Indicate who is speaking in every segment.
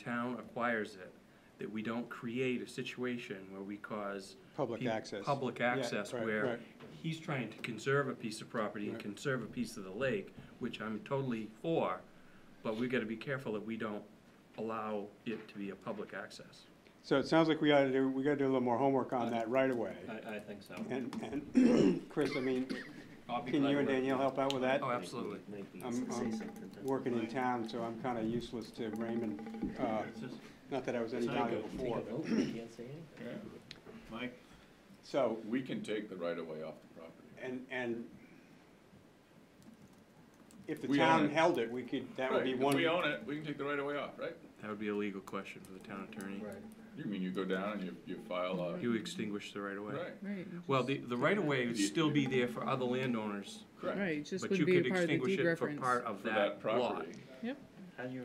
Speaker 1: town acquires it, that we don't create a situation where we cause.
Speaker 2: Public
Speaker 1: peop-
Speaker 2: access.
Speaker 1: Public
Speaker 2: Yeah,
Speaker 1: access
Speaker 2: right,
Speaker 1: where
Speaker 2: right.
Speaker 1: he's trying to conserve a piece of property and
Speaker 2: Right.
Speaker 1: conserve a piece of the lake, which I'm totally for, but we've got to be careful that we don't allow it to be a public access.
Speaker 2: So it sounds like we gotta do, we gotta do a little more homework on that right away.
Speaker 3: I, I think so.
Speaker 2: And, and Chris, I mean,
Speaker 1: I'll be
Speaker 2: can
Speaker 1: glad
Speaker 2: you and
Speaker 1: we're-
Speaker 2: Danielle help out with that?
Speaker 1: Oh, absolutely.
Speaker 2: I'm, I'm working in town, so I'm kinda useless to Raymond. Uh, Not that I was any value before, but,
Speaker 4: Mike,
Speaker 2: so,
Speaker 5: We can take the right of way off the property.
Speaker 2: and, and if the
Speaker 5: We own
Speaker 2: town
Speaker 5: it.
Speaker 2: held it, we could, that would
Speaker 5: Right,
Speaker 2: be
Speaker 5: if
Speaker 2: one.
Speaker 5: we own it, we can take the right of way off, right?
Speaker 1: That would be a legal question for the town attorney.
Speaker 5: You mean you go down and you, you file a,
Speaker 1: You extinguish the right of way.
Speaker 5: right,
Speaker 6: Right,
Speaker 1: Well, the, the right of way would still be there for other landowners,
Speaker 5: correct,
Speaker 6: right, it just
Speaker 1: but
Speaker 6: would
Speaker 1: you
Speaker 6: be
Speaker 1: could
Speaker 6: a part of the
Speaker 1: extinguish
Speaker 6: deed
Speaker 1: it for
Speaker 6: reference.
Speaker 1: part of
Speaker 5: for
Speaker 1: that
Speaker 5: that
Speaker 1: lot.
Speaker 5: property.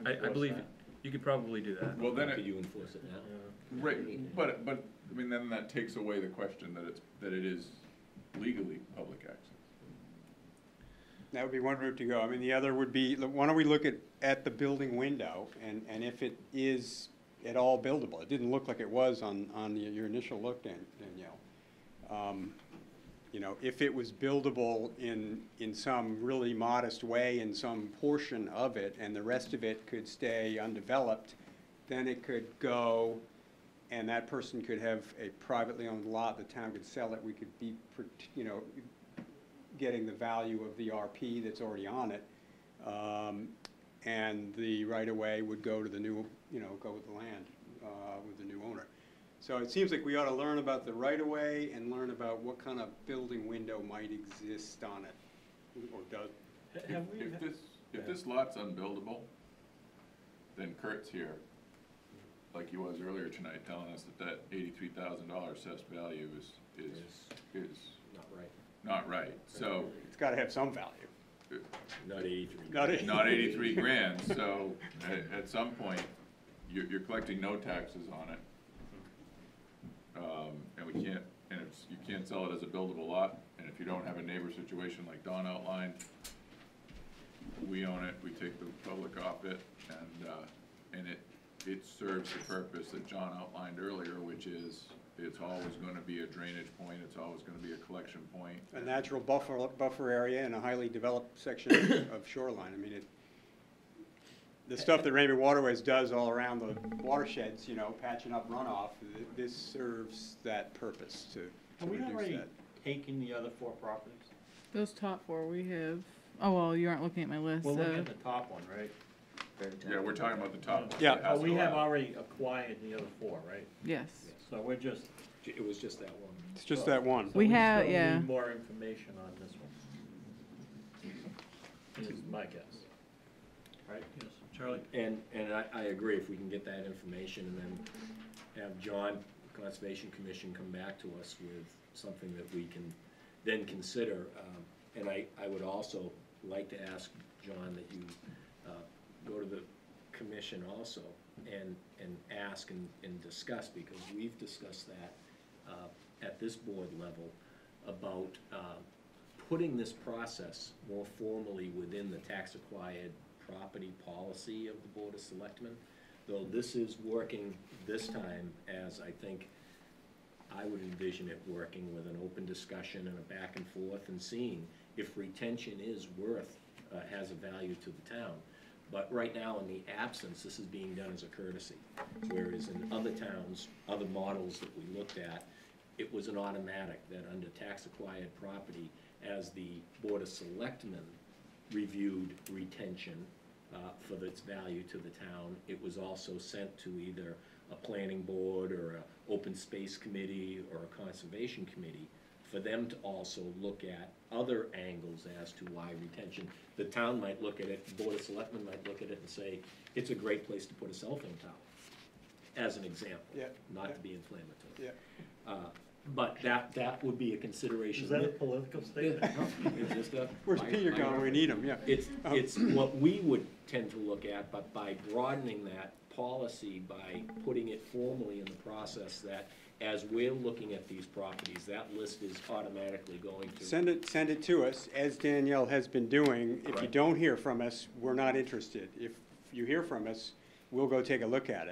Speaker 1: I, I believe you could probably do that.
Speaker 5: Well, then
Speaker 3: Could
Speaker 5: it,
Speaker 3: you enforce it now?
Speaker 5: right, but, but, I mean, then that takes away the question that it's, that it is legally public access.
Speaker 2: That would be one route to go. I mean, the other would be, look, why don't we look at, at the building window and, and if it is at all buildable? It didn't look like it was on, on your- your initial look, Dan- Danielle. Um, You know, if it was buildable in, in some really modest way, in some portion of it, and the rest of it could stay undeveloped, then it could go, and that person could have a privately owned lot, the town could sell it, we could be, prote- you know, getting the value of the RP that's already on it. um, And the right-of-way would go to the new, you know, go with the land, uh, with the new owner. So it seems like we ought to learn about the right-of-way and learn about what kind of building window might exist on it, or does.
Speaker 3: Have
Speaker 5: If- If this, if this lot's unbuildable, then Kurt's here, like he was earlier tonight, telling us that that eighty-three thousand dollar assessed value is, is, is
Speaker 3: Not right.
Speaker 5: not right. So,
Speaker 2: It's got to have some value.
Speaker 3: Not eighty-three.
Speaker 2: Not eighty-
Speaker 5: not eighty-three grand, so at, at some point, you're, you're collecting no taxes on it. Um, and we can't, and it's, you can't sell it as a buildable lot, and if you don't have a neighbor situation like Don outlined, we own it, we take the public off it, and, uh, and it, it serves the purpose that John outlined earlier, which is, it's always gonna be a drainage point, it's always gonna be a collection point.
Speaker 2: A natural buffer, buffer area and a highly developed section of shoreline. I mean, it, the stuff that Raymond Waterways does all around the watersheds, you know, patching up runoff, th- this serves that purpose to to
Speaker 4: have we
Speaker 2: reduce
Speaker 4: already
Speaker 2: that.
Speaker 4: taken the other four properties?
Speaker 6: Those top four we have, oh, well, you aren't looking at my list,
Speaker 4: We're looking
Speaker 6: uh,
Speaker 4: at the top one, right?
Speaker 5: Yeah, we're talking about the top one.
Speaker 2: Yeah.
Speaker 5: that
Speaker 4: Oh,
Speaker 5: has
Speaker 4: we
Speaker 5: it
Speaker 4: have
Speaker 5: allowed.
Speaker 4: already acquired the other four, right?
Speaker 6: yes.
Speaker 4: So we're just.
Speaker 3: It was just that one.
Speaker 2: It's just that one.
Speaker 4: so
Speaker 6: We have-
Speaker 4: still need
Speaker 6: yeah.
Speaker 4: More information on this one. Is my guess. Right? Yes. Charlie?
Speaker 3: And, and I, I agree, if we can get that information and then have John, Conservation Commission, come back to us with something that we can then consider. Um, And I, I would also like to ask, John, that you uh, go to the commission also and, and ask and, and discuss, because we've discussed that uh, at this board level about uh, putting this process more formally within the tax-acquired property policy of the Board of Selectmen, though this is working this time as, I think, I would envision it working with an open discussion and a back and forth and seeing if retention is worth, uh, has a value to the town. But right now, in the absence, this is being done as a courtesy. Whereas in other towns, other models that we looked at, it was an automatic that under tax acquired property, as the Board of Selectmen reviewed retention uh, for its value to the town, it was also sent to either a planning board or a open space committee or a conservation committee for them to also look at other angles as to why retention. The town might look at it, Board of Selectmen might look at it and say, it's a great place to put a cell phone tower, as an example.
Speaker 2: Yeah,
Speaker 3: Not
Speaker 2: yeah.
Speaker 3: to be inflammatory.
Speaker 2: Yeah.
Speaker 3: Uh, But that, that would be a consideration.
Speaker 4: Is that a political statement?
Speaker 3: It's just a-
Speaker 2: Where's
Speaker 3: my-
Speaker 2: Peter
Speaker 3: my
Speaker 2: going? We
Speaker 3: reference.
Speaker 2: need him, yeah.
Speaker 3: It's,
Speaker 2: Um,
Speaker 3: it's what we would tend to look at, but by broadening that policy, by putting it formally in the process that as we're looking at these properties, that list is automatically going to.
Speaker 2: Send it, send it to us, as Danielle has been doing. If you
Speaker 3: Right.
Speaker 2: don't hear from us, we're not interested. If you hear from us, we'll go take a look at it.